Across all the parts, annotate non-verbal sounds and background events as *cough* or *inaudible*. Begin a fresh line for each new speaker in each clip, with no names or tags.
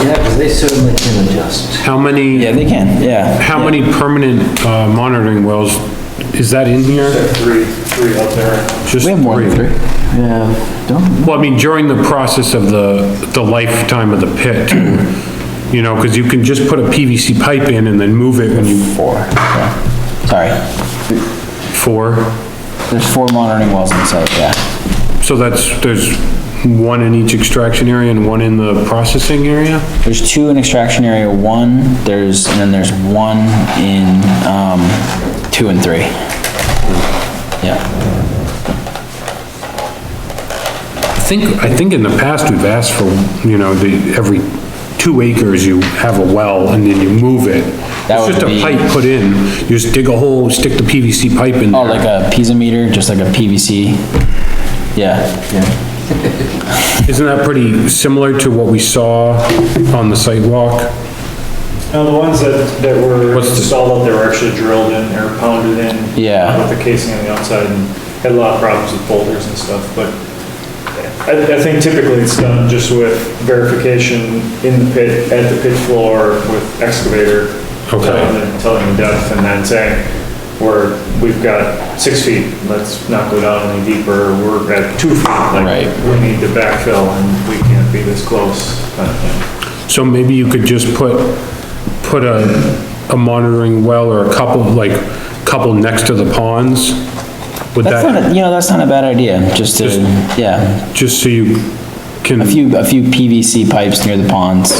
Yeah, because they certainly can adjust.
How many?
Yeah, they can, yeah.
How many permanent uh, monitoring wells, is that in here?
Three, three up there.
Just
We have more than three. Yeah, don't,
Well, I mean, during the process of the, the lifetime of the pit, too. you know, because you can just put a PVC pipe in and then move it when you,
four, sorry.
four,
There's four monitoring wells on the site, yeah.
so that's, there's one in each extraction area and one in the processing area?
There's two in extraction area one, there's, and then there's one in, um, two and three. Yeah,
I think, I think in the past, we've asked for, you know, the, every two acres, you have a well, and then you move it.
That
It's just
would
a
be-
pipe put in, you just dig a hole, stick the PVC pipe in there.
oh, like a piezo meter, just like a PVC, yeah.
Isn't that pretty similar to what we saw on the sidewalk?
Now, the ones that, that were
What's the-
installed up there were actually drilled in or pounded in.
Yeah.
With the casing on the outside and had a lot of problems with boulders and stuff, but I, I think typically it's done just with verification in the pit, at the pit floor with excavator.
Okay.
Telling them, telling them depth and then saying, we're, we've got six feet, let's not go down any deeper, we're at two feet. like,
Right.
We need to backfill and we can't be this close, kind of thing.
So maybe you could just put, put a, a monitoring well or a couple, like, couple next to the ponds? Would
That's not,
that,
a- you know, that's not a bad idea, just to,
Just-
yeah,
just so you can,
a few, a few PVC pipes near the ponds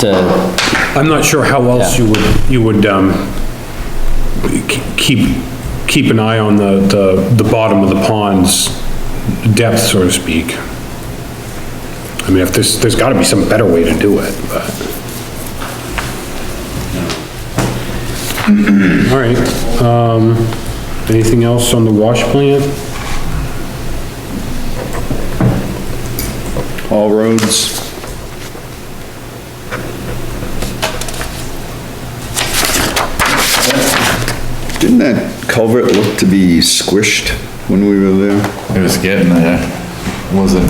to,
I'm not sure how else
Yeah.
you would, you would, um, k- keep, keep an eye on the, the, the bottom of the pond's depth, so to speak. I mean, if there's, there's gotta be some better way to do it, but. All right, um, anything else on the wash plant?
all roads. Didn't that culvert look to be squished when we were there?
It was getting there, wasn't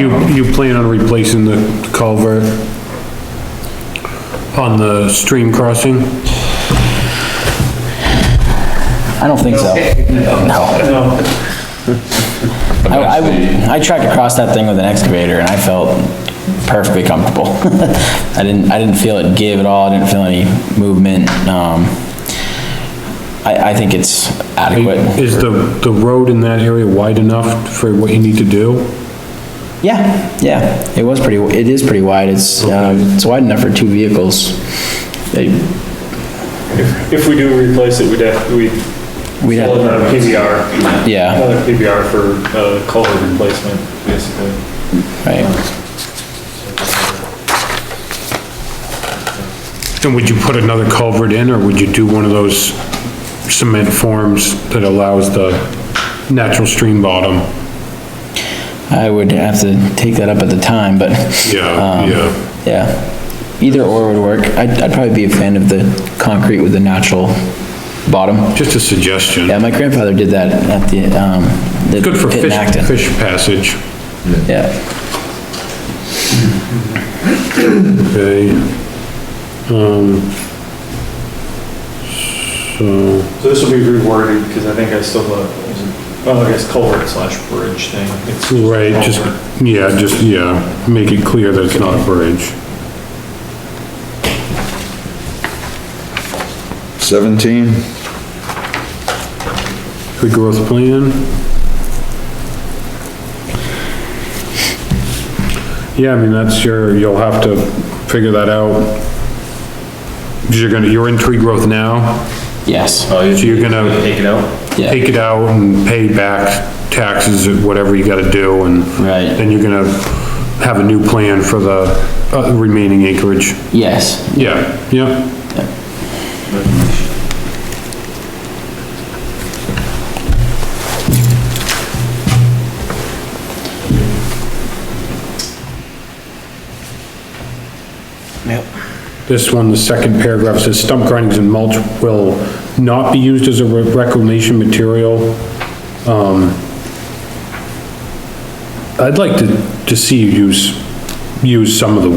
You,
round.
you plan on replacing the culvert on the stream crossing?
I don't think so.
No,
I, I, I tried to cross that thing with an excavator and I felt perfectly comfortable. *laughs* I didn't, I didn't feel it give at all, I didn't feel any movement, um, I, I think it's adequate.
Is the, the road in that area wide enough for what you need to do?
Yeah, yeah, it was pretty, it is pretty wide, it's, uh, it's wide enough for two vehicles. They-
If we do replace it, we'd have, we'd
We'd have-
fill another PBR.
Yeah.
Another PBR for uh, culvert replacement, basically.
Right,
And would you put another culvert in, or would you do one of those cement forms that allows the natural stream bottom?
I would have to take that up at the time, but.
Yeah,
um,
yeah.
Yeah, either or would work, I'd, I'd probably be a fan of the concrete with the natural bottom.
Just a suggestion.
Yeah, my grandfather did that at the, um, the
Good for
pit in
fish,
Acton.
fish passage.
Yeah,
Okay. Um, so,
So this will be reworded, because I think I still, uh, well, I guess culvert slash bridge thing. It's a
right, just,
culvert.
yeah, just, yeah, make it clear that it's not a bridge.
17?
The growth plan? Yeah, I mean, that's your, you'll have to figure that out. 'Cause You're gonna, you're in tree growth now,
yes,
Oh,
so you're gonna
Take it out?
yeah,
take it out and pay back taxes, or whatever you gotta do, and
right,
then you're gonna have a new plan for the uh, remaining acreage.
yes,
Yeah, yeah. This one, the second paragraph says stump grindings and mulch will not be used as a re- reclamation material. Um, I'd like to, to see you use, use some of the